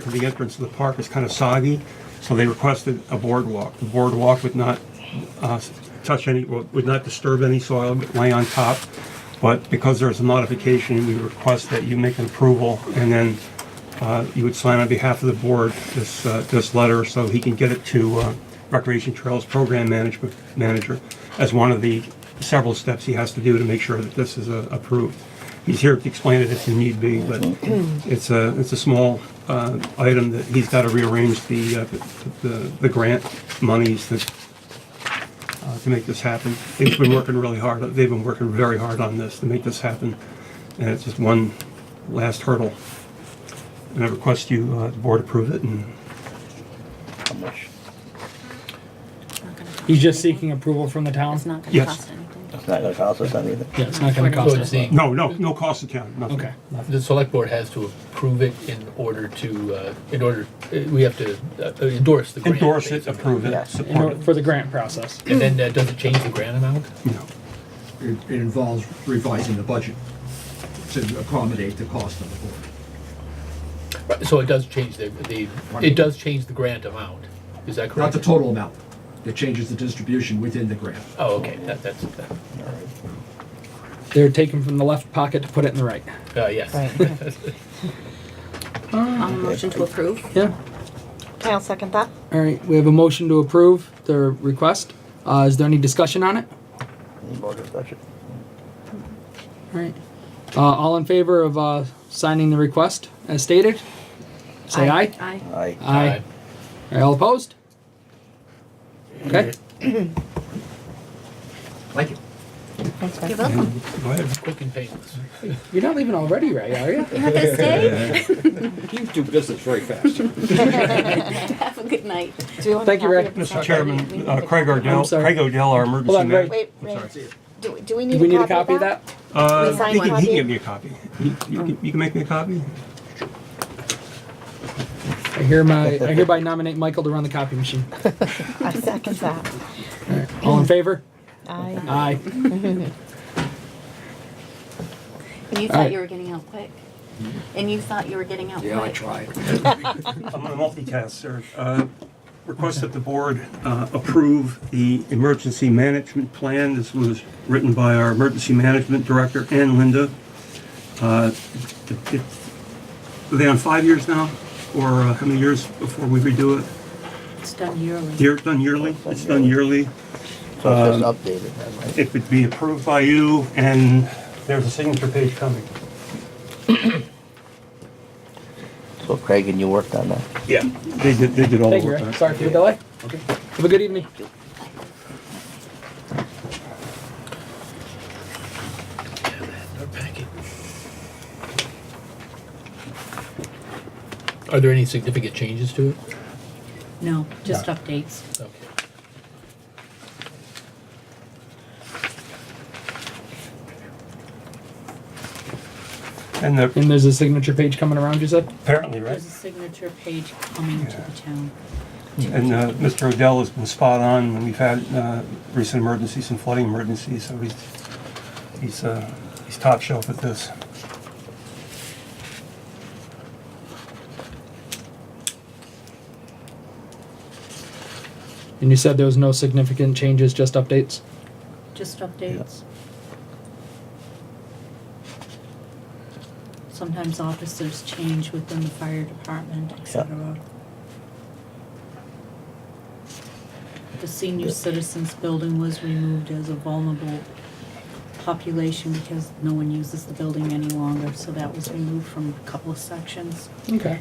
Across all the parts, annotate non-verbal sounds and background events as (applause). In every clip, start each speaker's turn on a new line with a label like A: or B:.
A: to the entrance of the park is kind of soggy, so they requested a boardwalk. The boardwalk would not uh, touch any, would not disturb any soil, but lay on top. But because there's a modification, we request that you make an approval, and then uh, you would sign on behalf of the board this, uh, this letter, so he can get it to uh, Recreation Trails Program Management Manager as one of the several steps he has to do to make sure that this is uh, approved. He's here to explain it if need be, but it's a, it's a small uh, item that he's got to rearrange the, uh, the the grant monies that uh, to make this happen. They've been working really hard, they've been working very hard on this to make this happen, and it's just one last hurdle. And I request you, uh, the board approve it, and
B: How much?
C: He's just seeking approval from the town?
D: It's not gonna
A: Yes.
D: cost anything.
B: It's not gonna cost us anything.
C: Yeah, it's not gonna cost
E: So
C: us.
E: it's
C: a
E: the-
C: lot.
A: no, no, no cost to town, nothing.
C: Okay.
E: The select board has to approve it in order to, uh, in order, uh, we have to uh, endorse the grant.
A: Endorse it,
E: basically.
A: approve it,
B: Yeah.
C: In
A: support
C: order-
A: it.
C: For the grant process.
E: And then, uh, does it change the grant amount?
A: No.
F: It it involves revising the budget to accommodate the cost of the board.
E: So it does change the, the, it does change the grant amount, is that
F: Not
E: correct?
F: the total amount. It changes the distribution within the grant.
E: Oh, okay, that, that's, that-
C: They're taken from the left pocket to put it in the right.
E: uh, yes. (laughs)
D: Um, motion to approve?
C: Yeah,
G: I'll second that.
C: all right, we have a motion to approve the request. Uh, is there any discussion on it?
B: Any more discussion?
C: All right. Uh, all in favor of, uh, signing the request as stated? Say aye.
D: Aye.
B: Aye.
C: Aye. All right, all opposed? Okay,
F: Thank you.
G: Thanks,
D: You're
G: guys. (laughs)
D: welcome.
A: Go ahead.
E: Quick and painless.
C: you're not leaving already, Ray, are you?
D: You have this day?
H: You do business very fast.
D: (laughs) Have a good night.
G: Do we want
C: Thank
G: a
C: you,
G: copy
C: Rick.
G: of the
A: Mr.
G: second?
A: Chairman, uh, Craig Ardell,
C: I'm sorry.
A: Craig Odell, our emergency
C: on,
A: manager.
G: Wait, Ray, do, do we need
C: Do
G: a copy of that?
C: we need a copy of that?
A: Uh,
G: We sign
A: he can,
G: one.
A: he can give me a copy. You, you can- you can make me a copy?
C: I hear my, I hereby nominate Michael to run the copy machine.
G: I second that.
C: All in favor?
G: I,
C: Aye.
D: And you
C: Aye.
D: thought you were getting out quick. And you thought you were getting out quick.
H: Yeah, I tried.
A: I'm on a multitask, sir. Uh, Request that the board uh, approve the emergency management plan. This was written by our emergency management director, Ann Linda. Uh, it- it- Are they on five years now, or uh, how many years before we redo it?
D: It's done yearly.
A: Year, done yearly? It's done yearly.
B: So it's just updated then, right?
A: It would be approved by you, and there's a signature page coming.
B: So Craig, and you worked on that?
A: Yeah. They did, they did all the
C: Thank you,
A: work.
C: Ray.
A: on it.
C: Sorry for the delay. Have a good evening.
E: Our packet. Are there any significant changes to it?
D: No, just updates.
E: Okay.
A: And the-
C: And there's a signature page coming around, you said?
A: apparently, right?
D: There's a signature page coming to the town.
A: And uh, Mr. Odell has been spot on when we've had uh, recent emergencies and flooding emergencies, so he's, he's, uh, he's top shelf at this.
C: And you said there was no significant changes, just updates?
D: Just updates. Sometimes officers change within the fire department, et cetera. The senior citizens building was removed as a vulnerable population because no one uses the building any longer, so that was removed from a couple of sections.
C: Okay.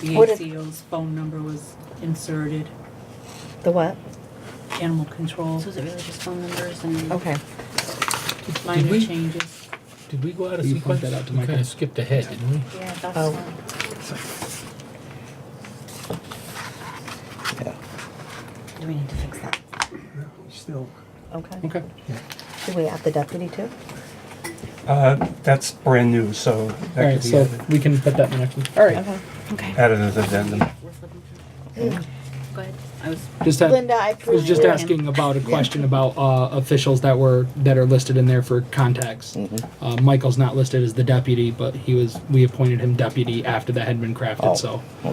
D: The
G: What if-
D: ACO's phone number was inserted,
G: Uh, the what?
D: animal control,
I: So is it really just phone numbers and?
G: Okay.
D: minor
E: we-
D: changes.
E: Did we go out of
C: You point
E: sequence?
C: that out to
E: We
C: Michael.
E: kinda skipped ahead, didn't we?
I: Yeah, that's
G: Oh.
I: fine.
B: Yeah.
I: Do we need to fix that?
A: Still,
G: Okay.
C: Okay.
G: Do we add the deputy too?
A: uh, that's brand new, so
C: All
A: that
C: right,
A: could be
C: so
A: added-
C: we can put that in the next one. All right.
G: Okay.
I: Okay.
A: added as addendum.
I: Worth looking through. Go ahead. I was.
C: Just had,
G: Mm. Linda, I
C: I was
G: approve
C: just
G: your-
C: asking about a question about uh, officials that were, that are listed in there for contacts.
G: Mm-hmm.
C: Uh, Michael's not listed as the deputy, but he was, we appointed him deputy after that had been
B: Oh.
C: crafted, so.